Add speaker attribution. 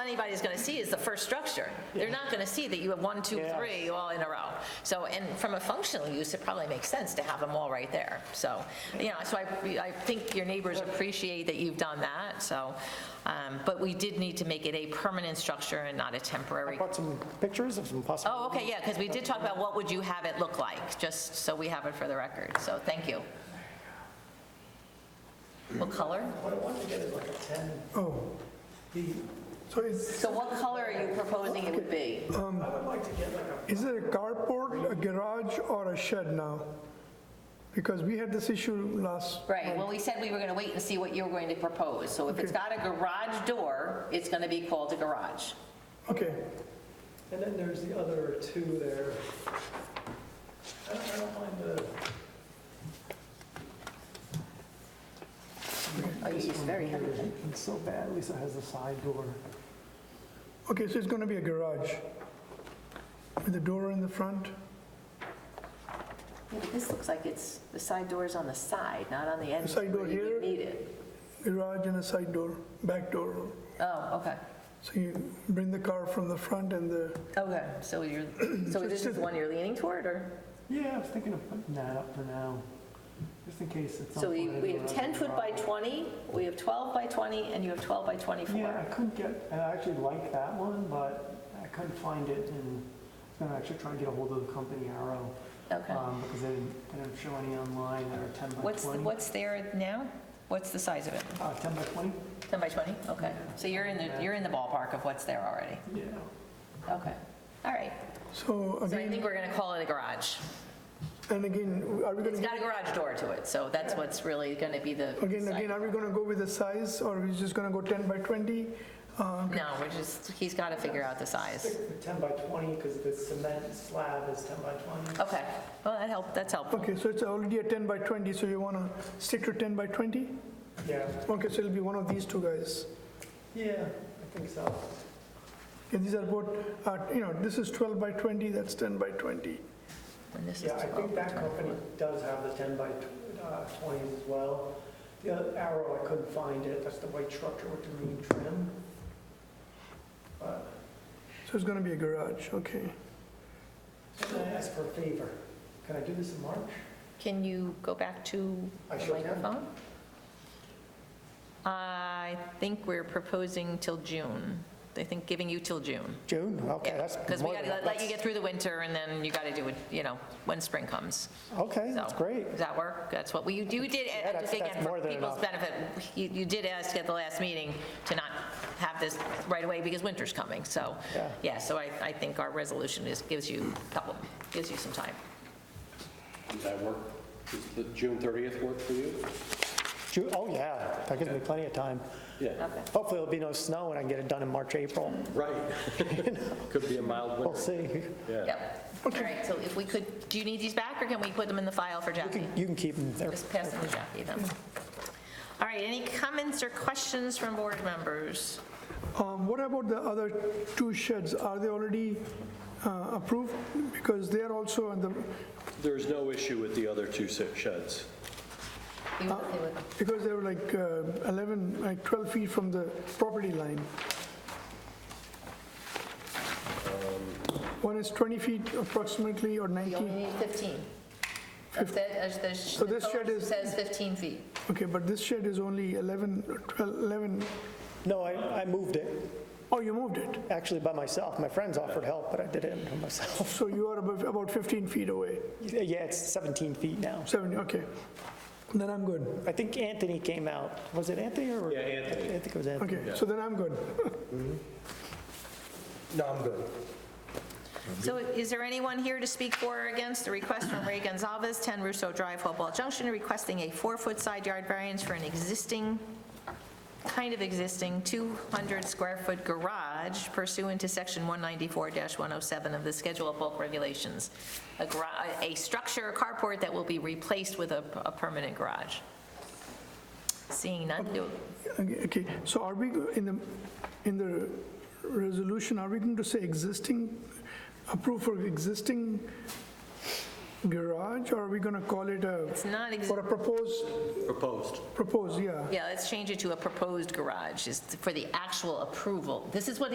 Speaker 1: anybody's going to see is the first structure. They're not going to see that you have one, two,
Speaker 2: Yeah.
Speaker 1: three all in a row. So, and from a functional use, it probably makes sense to have them all right there. So, you know, so I, I think your neighbors appreciate that you've done that, so. um, But we did need to make it a permanent structure and not a temporary.
Speaker 2: Brought some pictures of some possible.
Speaker 1: Oh, okay, yeah, because we did talk about what would you have it look like, just so we have it for the record. So, thank you. What color?
Speaker 3: Oh, the, so is,
Speaker 1: So what color are you proposing it would be?
Speaker 3: is it a carport, a garage, or a shed now? Because we had this issue last,
Speaker 1: Right, well, we said we were going to wait and see what you were going to propose. So if it's
Speaker 3: Okay.
Speaker 1: got a garage door, it's going to be called a garage.
Speaker 3: okay,
Speaker 4: And then there's the other two there. I don't, I don't mind the,
Speaker 1: Oh, you used very heavy.
Speaker 4: it's so bad, at least it has the side door.
Speaker 3: okay, so it's going to be a garage with a door in the front?
Speaker 1: Yeah, but This looks like it's, the side door is on the side, not on the end.
Speaker 3: The side door
Speaker 1: where you would
Speaker 3: here?
Speaker 1: Need it.
Speaker 3: garage and a side door, back door.
Speaker 1: Oh, okay,
Speaker 3: So you bring the car from the front and the,
Speaker 1: okay. So you're, so this is the one you're leaning toward, or?
Speaker 4: Yeah, I was thinking of putting that up for now, just in case it's.
Speaker 1: So we we have 10 foot by 20, we have 12 by 20, and you have 12 by
Speaker 4: Yeah, I
Speaker 1: 24.
Speaker 4: couldn't get, I actually like that one, but I couldn't find it and I'm gonna actually try and get a hold of the company Arrow.
Speaker 1: Okay.
Speaker 4: um, Because they didn't, they didn't show any online that are 10 by 20.
Speaker 1: What's, what's there now? What's the size of it?
Speaker 4: Uh, 10 by 20?
Speaker 1: 10 by 20? Okay. So you're in the, you're in the ballpark of what's there already.
Speaker 4: Yeah.
Speaker 1: Okay, all right.
Speaker 3: so
Speaker 1: So I
Speaker 3: again,
Speaker 1: think we're going to call it a garage.
Speaker 3: and again, are we going
Speaker 1: It's
Speaker 3: to,
Speaker 1: got a garage door to it, so that's what's really going to be the.
Speaker 3: again,
Speaker 1: site.
Speaker 3: again, are we going to go with the size or are we just going to go 10 by 20? Uh,
Speaker 1: No, we're just, he's got to figure out the size.
Speaker 4: Stick with 10 by 20 because the cement slab is 10 by 20.
Speaker 1: Okay, well, that helped, that's helpful.
Speaker 3: Okay, so it's already a 10 by 20, so you want to stick to 10 by 20?
Speaker 4: Yeah,
Speaker 3: Okay, so it'll be one of these two guys.
Speaker 4: yeah, I think so.
Speaker 3: And these are both, uh, you know, this is 12 by 20, that's 10 by 20.
Speaker 1: And this is
Speaker 4: Yeah, I
Speaker 1: 12.
Speaker 4: think that company does have the 10 by tw- uh, 20s as well. The other arrow, I couldn't find it, that's the white structure with the green trim. But,
Speaker 3: So it's going to be a garage, okay.
Speaker 4: so can I ask for a favor? Can I do this in March?
Speaker 1: Can you go back to
Speaker 4: I
Speaker 1: the
Speaker 4: sure can.
Speaker 1: microphone? I think we're proposing till June. I think giving you till June.
Speaker 5: June? Okay, that's
Speaker 1: Because we
Speaker 5: more
Speaker 1: got
Speaker 5: than...
Speaker 1: to
Speaker 5: enough.
Speaker 1: let you get through the winter, and then you got to do it, you know, when spring comes.
Speaker 5: Okay,
Speaker 1: So,
Speaker 5: that's great.
Speaker 1: Does that work? That's what, we you you did,
Speaker 5: Yeah, that's-
Speaker 1: again,
Speaker 5: that's
Speaker 1: for
Speaker 5: more than
Speaker 1: people's
Speaker 5: enough.
Speaker 1: benefit, you you did ask at the last meeting to not have this right away because winter's coming, so,
Speaker 5: Yeah.
Speaker 1: yeah, so I, I think our resolution is, gives you a couple, gives you some time.
Speaker 6: Does that work? Does the June 30th work for you?
Speaker 5: Ju- Oh, yeah, that gives me plenty of time.
Speaker 6: Yeah.
Speaker 1: Okay.
Speaker 5: Hopefully, there'll be no snow and I can get it done in March, April.
Speaker 6: Right. Could be a mild
Speaker 5: We'll
Speaker 6: winter.
Speaker 5: see.
Speaker 1: Yep. All right, so if we could, do you need these back, or can we put them in the file for Jackie?
Speaker 5: You can keep them there.
Speaker 1: Just pass them to Jackie, then.
Speaker 5: Mm-hmm.
Speaker 1: All right, any comments or questions from board members?
Speaker 3: Um, What about the other two sheds? Are they already uh, approved? Because they are also on the,
Speaker 6: There's no issue with the other two se- sheds.
Speaker 1: You okay with-
Speaker 3: because they were like uh, 11, like 12 feet from the property line. One is 20 feet approximately or
Speaker 1: You
Speaker 3: 19.
Speaker 1: only need 15. That's it, as the sh-
Speaker 3: So this
Speaker 1: the
Speaker 3: shed
Speaker 1: code
Speaker 3: is-
Speaker 1: Says 15 feet.
Speaker 3: Okay, but this shed is only 11, or 12, 11,
Speaker 5: No, I I moved it,
Speaker 3: oh, you moved it.
Speaker 5: actually by myself. My friends offered help, but I did it by myself.
Speaker 3: So you are above- about 15 feet away,
Speaker 5: Yeah, it's 17 feet now.
Speaker 3: 70, okay. Then I'm good.
Speaker 5: I think Anthony came out. Was it Anthony or?
Speaker 6: Yeah, Anthony.
Speaker 5: I think it was Anthony.
Speaker 3: Okay, so then I'm good.
Speaker 1: So is there anyone here to speak for or against the request from Ray Gonzalez, 10 Russo Drive, Hopewell Junction, requesting a four-foot side yard variance for an existing, kind of existing, 200-square-foot garage pursuant to Section 194-107 of the Schedule of Bulk Regulations? A garage, a structure, a carport that will be replaced with a a permanent garage. Seeing none, do-
Speaker 3: Okay, okay. so are we, go- in the, in the resolution, are we going to say existing, approve for existing garage, or are we going to call it a,
Speaker 1: it's not existing.
Speaker 3: or a proposed,
Speaker 6: Proposed.
Speaker 3: proposed, yeah?
Speaker 1: Yeah, let's change it to a proposed garage, is for the actual approval. This is what